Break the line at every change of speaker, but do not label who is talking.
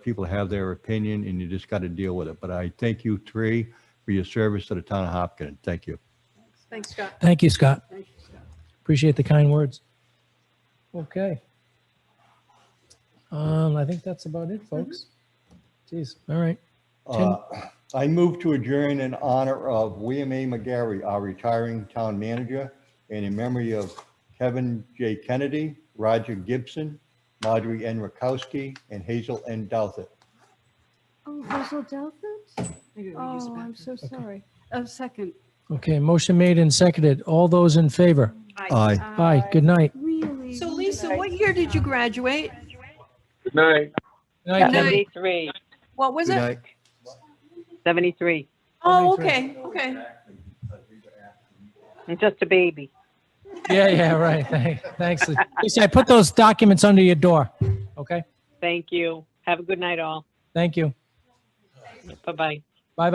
people have their opinion and you just got to deal with it. But I thank you three for your service to the town of Hopkinton. Thank you.
Thanks, Scott.
Thank you, Scott.
Thank you, Scott.
Appreciate the kind words. Okay. Um, I think that's about it, folks.
Mm-hmm.
Jeez, all right.
Uh, I move to adjourn in honor of William A. McGarry, our retiring town manager, and in memory of Kevin J. Kennedy, Roger Gibson, Marjorie N. Rakowski, and Hazel N. Douthit.
Oh, Hazel Douthit?
Maybe we use the
Oh, I'm
bathroom.
so sorry. A second.
Okay, motion made and seconded. All those in favor?
Aye.
Aye.
Aye, good night.
Really?
So Lisa, what year did you graduate?
Good night.
Good night.
73,
What was
Good
it?
night.
73.
Oh, okay,
73.
okay.
I'm just a baby.
Yeah, yeah, right. Thank- Thanks. Lisa, I put those documents under your door. Okay,
Thank you. Have a good night all.
thank you.
Bye-bye.